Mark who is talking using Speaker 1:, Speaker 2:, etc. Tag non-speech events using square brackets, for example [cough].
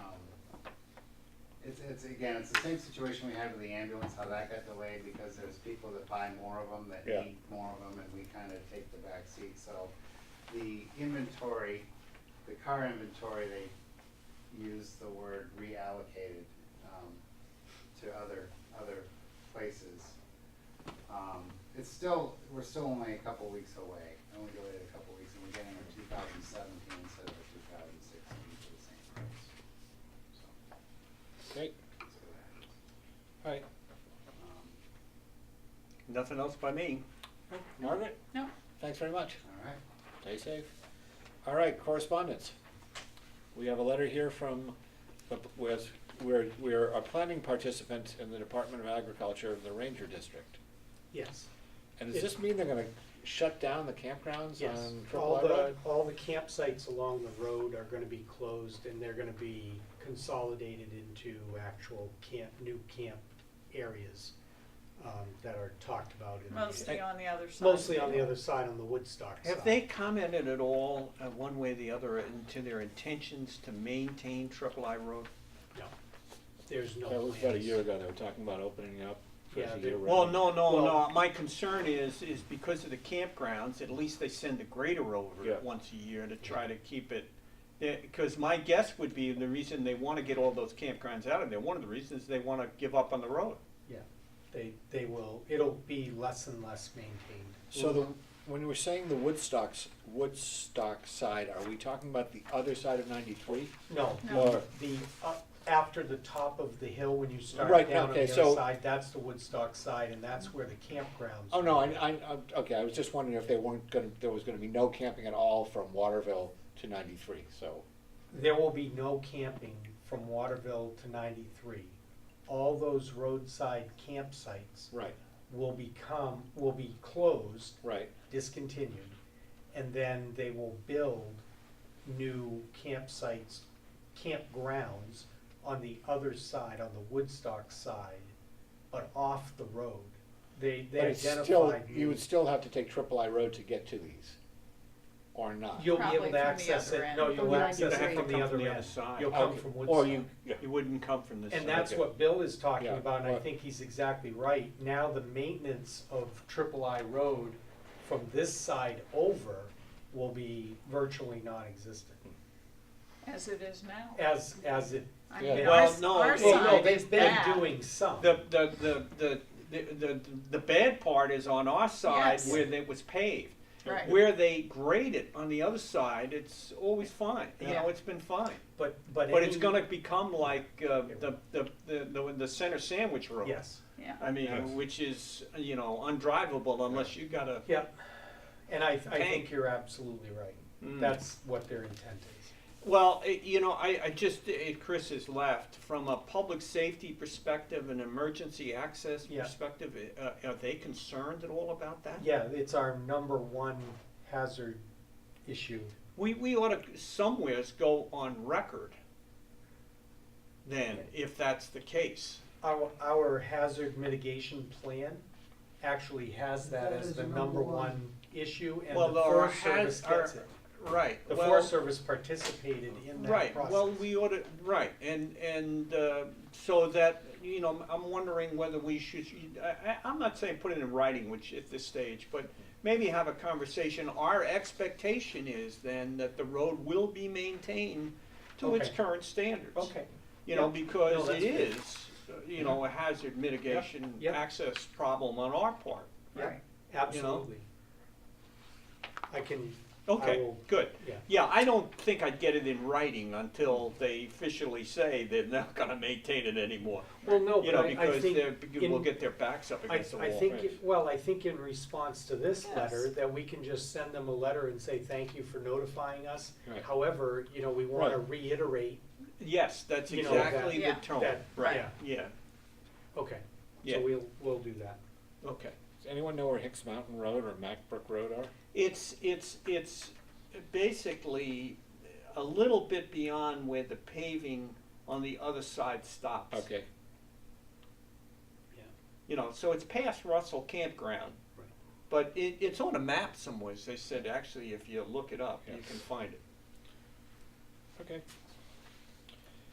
Speaker 1: Um, it's, again, it's the same situation we had with the ambulance, how that got delayed, because there's people that buy more of them, that
Speaker 2: Yeah.
Speaker 1: need more of them, and we kind of take the back seat, so. The inventory, the car inventory, they use the word reallocated, um, to other, other places. Um, it's still, we're still only a couple weeks away, only delayed a couple weeks, and we're getting our two thousand seventeen instead of our two thousand sixteen for the same price. So.
Speaker 2: Great,
Speaker 1: That's what happens.
Speaker 2: all right.
Speaker 1: Um,
Speaker 3: Nothing else by me.
Speaker 2: Margaret,
Speaker 4: No,
Speaker 2: thanks very much.
Speaker 1: All right.
Speaker 2: Stay safe. All right, correspondence. We have a letter here from, the- was, we're, we're a planning participant in the Department of Agriculture of the Ranger District.
Speaker 5: Yes,
Speaker 2: And does this mean they're gonna shut down the campgrounds
Speaker 5: yes.
Speaker 3: Um,
Speaker 2: on Triple
Speaker 5: All
Speaker 2: I
Speaker 5: the,
Speaker 2: Road?
Speaker 5: all the campsites along the road are gonna be closed and they're gonna be consolidated into actual camp, new camp areas um, that are talked about in the,
Speaker 4: mostly on the other side.
Speaker 5: mostly on the other side, on the Woodstock side.
Speaker 3: Have they commented at all, uh, one way or the other, into their intentions to maintain Triple I Road?
Speaker 5: No, there's
Speaker 2: That
Speaker 5: no plans.
Speaker 2: was about a year ago, they were talking about opening up for
Speaker 5: Yeah,
Speaker 2: the
Speaker 5: they-
Speaker 2: year round.
Speaker 3: Well, no, no, no,
Speaker 5: Well-
Speaker 3: my concern is, is because of the campgrounds, at least they send the grader
Speaker 2: Yeah.
Speaker 3: over once a year to try to keep it. Because my guess would be the reason they wanna get all those campgrounds out of there, one of the reasons they wanna give up on the road.
Speaker 5: Yeah, they, they will, it'll be less and less maintained.
Speaker 2: So the, when we're saying the Woodstocks, Woodstock side, are we talking about the other side of ninety-three?
Speaker 5: No,
Speaker 4: No.
Speaker 2: Or-
Speaker 5: the, up after the top of the hill, when you start
Speaker 2: Right,
Speaker 5: down on
Speaker 2: okay,
Speaker 5: the
Speaker 2: so-
Speaker 5: other side, that's the Woodstock side, and that's where the campgrounds.
Speaker 2: Oh, no,
Speaker 5: were.
Speaker 2: I, I, I'm- okay, I was just wondering if they weren't gonna, there was gonna be no camping at all from Waterville to ninety-three, so.
Speaker 5: There will be no camping from Waterville to ninety-three. All those roadside campsites
Speaker 2: Right,
Speaker 5: will become, will be closed,
Speaker 2: right.
Speaker 5: discontinued, and then they will build new campsites, campgrounds on the other side, on the Woodstock side, but off the road. They, they
Speaker 2: But it's still,
Speaker 5: identified.
Speaker 2: you would still have to take Triple I Road to get to these, or not.
Speaker 5: You'll be
Speaker 4: Probably
Speaker 5: able
Speaker 4: from
Speaker 5: to
Speaker 4: the
Speaker 5: access
Speaker 4: other
Speaker 5: it,
Speaker 4: end.
Speaker 5: no, you'll access
Speaker 3: You'd have
Speaker 5: it
Speaker 3: to
Speaker 5: from the
Speaker 3: come
Speaker 5: other
Speaker 3: from the
Speaker 5: end.
Speaker 3: other side.
Speaker 5: You'll come
Speaker 2: Okay.
Speaker 5: from
Speaker 2: Or you,
Speaker 5: Woodstock.
Speaker 2: yeah,
Speaker 3: You wouldn't come from this side.
Speaker 5: And that's
Speaker 2: Okay.
Speaker 5: what Bill is talking
Speaker 2: Yeah,
Speaker 5: about, and I
Speaker 2: what-
Speaker 5: think he's exactly right. Now, the maintenance of Triple I Road from this side over will be virtually non-existent,
Speaker 4: As it is now.
Speaker 5: as, as it,
Speaker 4: I
Speaker 2: Yeah.
Speaker 4: mean,
Speaker 3: Well,
Speaker 4: ours-
Speaker 3: no,
Speaker 4: Our
Speaker 3: well,
Speaker 5: well, no,
Speaker 4: side is
Speaker 5: they've been
Speaker 4: bad.
Speaker 5: doing some.
Speaker 3: The, the, the, the, the, the, the bad part is on our side
Speaker 4: Yes.
Speaker 3: where it was paved.
Speaker 4: Right.
Speaker 3: Where they grade it on the other side, it's always fine, you
Speaker 4: Yeah.
Speaker 3: know, it's been fine.
Speaker 5: But, but.
Speaker 3: But it's
Speaker 5: any-
Speaker 3: gonna become like, uh, the, the, the, the, the center sandwich road.
Speaker 5: Yes,
Speaker 4: Yeah.
Speaker 3: I mean, which is, you know, undrivable unless you got a,
Speaker 5: yep. And I, I
Speaker 3: Tank.
Speaker 5: think you're absolutely right.
Speaker 3: Mm.
Speaker 5: That's what their intent is.
Speaker 3: well, it, you know, I, I just, it, Chris has left, from a public safety perspective, an emergency access
Speaker 5: Yeah.
Speaker 3: perspective, uh, are they concerned at all about that?
Speaker 5: Yeah, it's our number one hazard issue.
Speaker 3: We, we ought to somewheres go on record then, if that's the case.
Speaker 5: Our, our hazard mitigation plan actually has that as the number one issue, and
Speaker 3: Well,
Speaker 5: the
Speaker 3: our
Speaker 5: Forest Service
Speaker 3: haz- our-
Speaker 5: gets it.
Speaker 3: Right.
Speaker 5: The
Speaker 3: well-
Speaker 5: Forest Service participated in that
Speaker 3: Right,
Speaker 5: process.
Speaker 3: well, we ought to, right, and, and, uh, so that, you know, I'm wondering whether we should, I, I, I'm not saying put it in writing, which at this stage, but maybe have a conversation. Our expectation is then that the road will be maintained to its
Speaker 5: Okay.
Speaker 3: current standards.
Speaker 5: Okay,
Speaker 3: You know,
Speaker 5: Yep. No,
Speaker 3: because it
Speaker 5: that's good.
Speaker 3: is, uh, you know, a hazard mitigation
Speaker 5: Yep.
Speaker 3: access problem on our part.
Speaker 4: Right.
Speaker 5: absolutely. I can, I
Speaker 3: Okay,
Speaker 5: will,
Speaker 3: good.
Speaker 5: yeah,
Speaker 3: Yeah, I don't think I'd get it in writing until they officially say they're not [laughs] gonna maintain it anymore.
Speaker 5: well, no,
Speaker 3: You
Speaker 5: but
Speaker 3: know,
Speaker 5: I, I
Speaker 3: because
Speaker 5: think,
Speaker 3: they're, because we'll
Speaker 5: in-
Speaker 3: get their backs up
Speaker 5: I,
Speaker 3: against the wall.
Speaker 5: I think, it- well, I think in response to this
Speaker 4: Yes.
Speaker 5: letter, that we can just send them a letter and say, thank you for notifying us.
Speaker 2: Right.
Speaker 5: However, you know, we wanna reiterate
Speaker 3: Yes, that's
Speaker 5: You know,
Speaker 3: exactly
Speaker 4: that-
Speaker 3: the
Speaker 4: Yeah.
Speaker 3: tone,
Speaker 5: that,
Speaker 3: right,
Speaker 5: yeah,
Speaker 3: yeah,
Speaker 5: okay,
Speaker 3: yeah,
Speaker 5: so we'll, we'll do that.
Speaker 3: okay.
Speaker 2: Does anyone know where Hicks Mountain Road or Macbrook Road are?
Speaker 3: It's, it's, it's basically a little bit beyond where the paving on the other side stops.
Speaker 2: Okay,
Speaker 5: Yeah.
Speaker 3: You know, so it's past Russell Campground,
Speaker 5: Right.
Speaker 3: but it, it's on a map somewhere, they said, actually, if you look it up, you
Speaker 2: Yeah.
Speaker 3: can find it.
Speaker 2: okay.